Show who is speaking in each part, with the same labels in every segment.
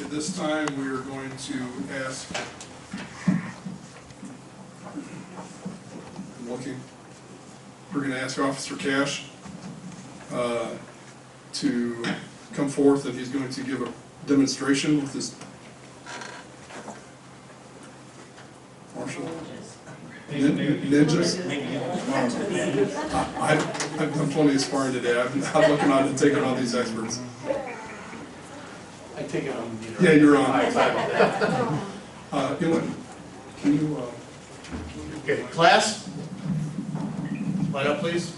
Speaker 1: At this time, we are going to ask, I'm looking, we're going to ask Officer Cash uh, to come forth, and he's going to give a demonstration with his marshal. Nin- Ninjas. I- I've, I've done plenty of sparring today, I'm not looking on to take on all these experts.
Speaker 2: I take it on.
Speaker 1: Yeah, you're on.
Speaker 2: High five on that.
Speaker 1: Uh, you know, can you, uh?
Speaker 2: Okay, class? Line up, please.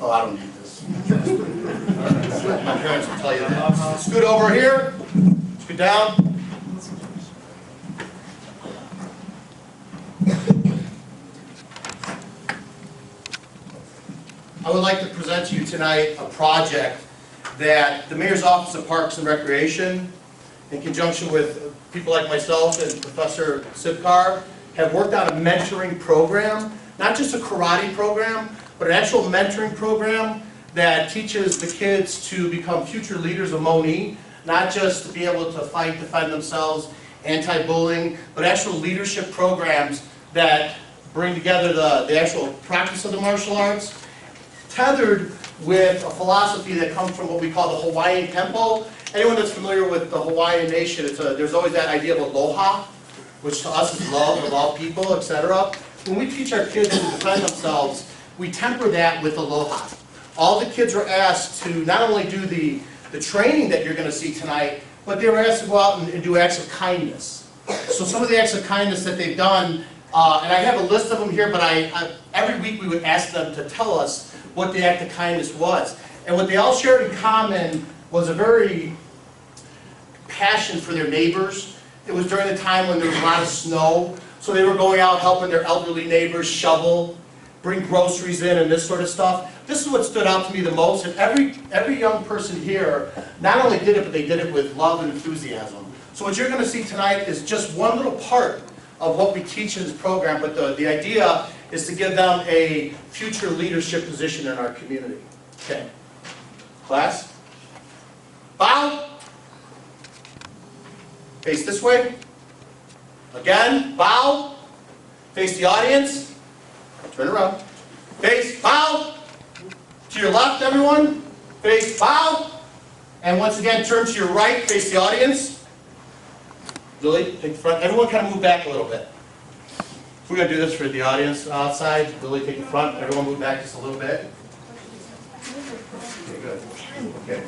Speaker 2: Oh, I don't need this. My parents will tell you that. Scoot over here, scoot down. I would like to present to you tonight a project that the Mayor's Office of Parks and Recreation, in conjunction with people like myself and Professor Sivkar, have worked on a mentoring program, not just a karate program, but an actual mentoring program that teaches the kids to become future leaders of Moni, not just to be able to fight, defend themselves, anti-bullying, but actual leadership programs that bring together the, the actual practice of the martial arts tethered with a philosophy that comes from what we call the Hawaiian tempo. Anyone that's familiar with the Hawaiian nation, it's a, there's always that idea of aloha, which to us is love of all people, etc. When we teach our kids to defend themselves, we temper that with aloha. All the kids are asked to not only do the, the training that you're gonna see tonight, but they were asked to go out and, and do acts of kindness. So some of the acts of kindness that they've done, uh, and I have a list of them here, but I, I, every week we would ask them to tell us what the act of kindness was. And what they all shared in common was a very passion for their neighbors. It was during the time when there was a lot of snow, so they were going out helping their elderly neighbors shovel, bring groceries in and this sort of stuff. This is what stood out to me the most, and every, every young person here not only did it, but they did it with love and enthusiasm. So what you're gonna see tonight is just one little part of what we teach in this program, but the, the idea is to give them a future leadership position in our community. Okay. Class? Bow? Face this way. Again, bow. Face the audience. Turn around. Face, bow. To your left, everyone. Face, bow. And once again, turn to your right, face the audience. Lily, take the front. Everyone kind of move back a little bit. If we're gonna do this for the audience outside, Lily, take the front. Everyone move back just a little bit. Okay, good. Okay.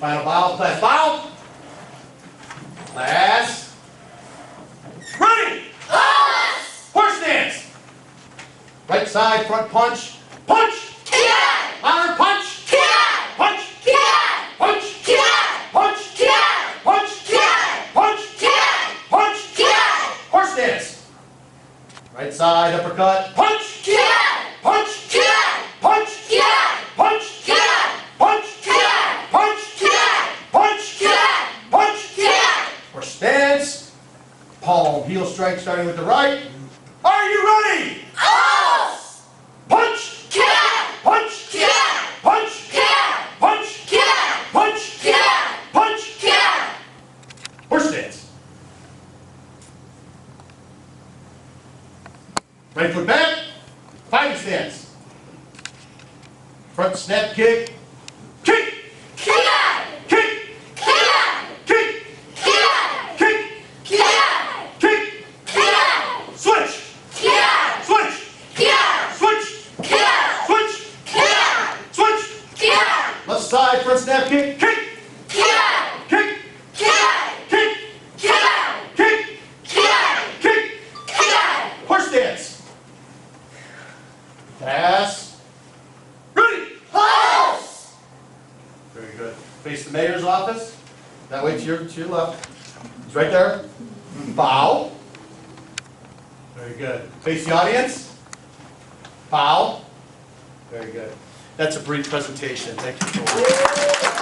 Speaker 2: Final bow, class bow. Class. Ready. Horse stance. Right side, front punch. Punch.
Speaker 3: Kiai!
Speaker 2: Louder punch.
Speaker 3: Kiai!
Speaker 2: Punch.
Speaker 3: Kiai!
Speaker 2: Punch.
Speaker 3: Kiai!
Speaker 2: Punch.
Speaker 3: Kiai!
Speaker 2: Punch.
Speaker 3: Kiai!
Speaker 2: Punch.
Speaker 3: Kiai!
Speaker 2: Punch.
Speaker 3: Kiai!
Speaker 2: Horse stance. Right side, uppercut. Punch.
Speaker 3: Kiai!
Speaker 2: Punch.
Speaker 3: Kiai!
Speaker 2: Punch.
Speaker 3: Kiai!
Speaker 2: Punch.
Speaker 3: Kiai!
Speaker 2: Punch.
Speaker 3: Kiai!
Speaker 2: Punch.
Speaker 3: Kiai!
Speaker 2: Punch.
Speaker 3: Kiai!
Speaker 2: Punch.
Speaker 3: Kiai!
Speaker 2: or stance. Palm heel strike starting with the right. Are you ready?
Speaker 3: Us!
Speaker 2: Punch!
Speaker 3: Kiai!
Speaker 2: Punch!
Speaker 3: Kiai!
Speaker 2: Punch!
Speaker 3: Kiai!
Speaker 2: Punch!
Speaker 3: Kiai!
Speaker 2: Punch!
Speaker 3: Kiai!
Speaker 2: Punch!
Speaker 3: Kiai!
Speaker 2: Horse stance. Right foot back. Fighting stance. Front snap kick. Kick!
Speaker 3: Kiai!
Speaker 2: Kick!
Speaker 3: Kiai!
Speaker 2: Kick!
Speaker 3: Kiai!
Speaker 2: Kick!
Speaker 3: Kiai!
Speaker 2: Kick!
Speaker 3: Kiai!
Speaker 2: Switch!
Speaker 3: Kiai!
Speaker 2: Switch!
Speaker 3: Kiai!
Speaker 2: Switch!
Speaker 3: Kiai!
Speaker 2: Switch!
Speaker 3: Kiai!
Speaker 2: Switch!
Speaker 3: Kiai!
Speaker 2: Left side, front snap kick, kick,
Speaker 3: Kiai!
Speaker 2: kick,
Speaker 3: Kiai!
Speaker 2: kick,
Speaker 3: Kiai!
Speaker 2: kick,
Speaker 3: Kiai!
Speaker 2: kick,
Speaker 3: Kiai!
Speaker 2: horse stance. Pass. Ready.
Speaker 3: Us!
Speaker 2: Very good. Face the mayor's office, that way to your, to your left. He's right there. Bow. Very good. Face the audience. Bow. Very good. That's a brief presentation, thank you for.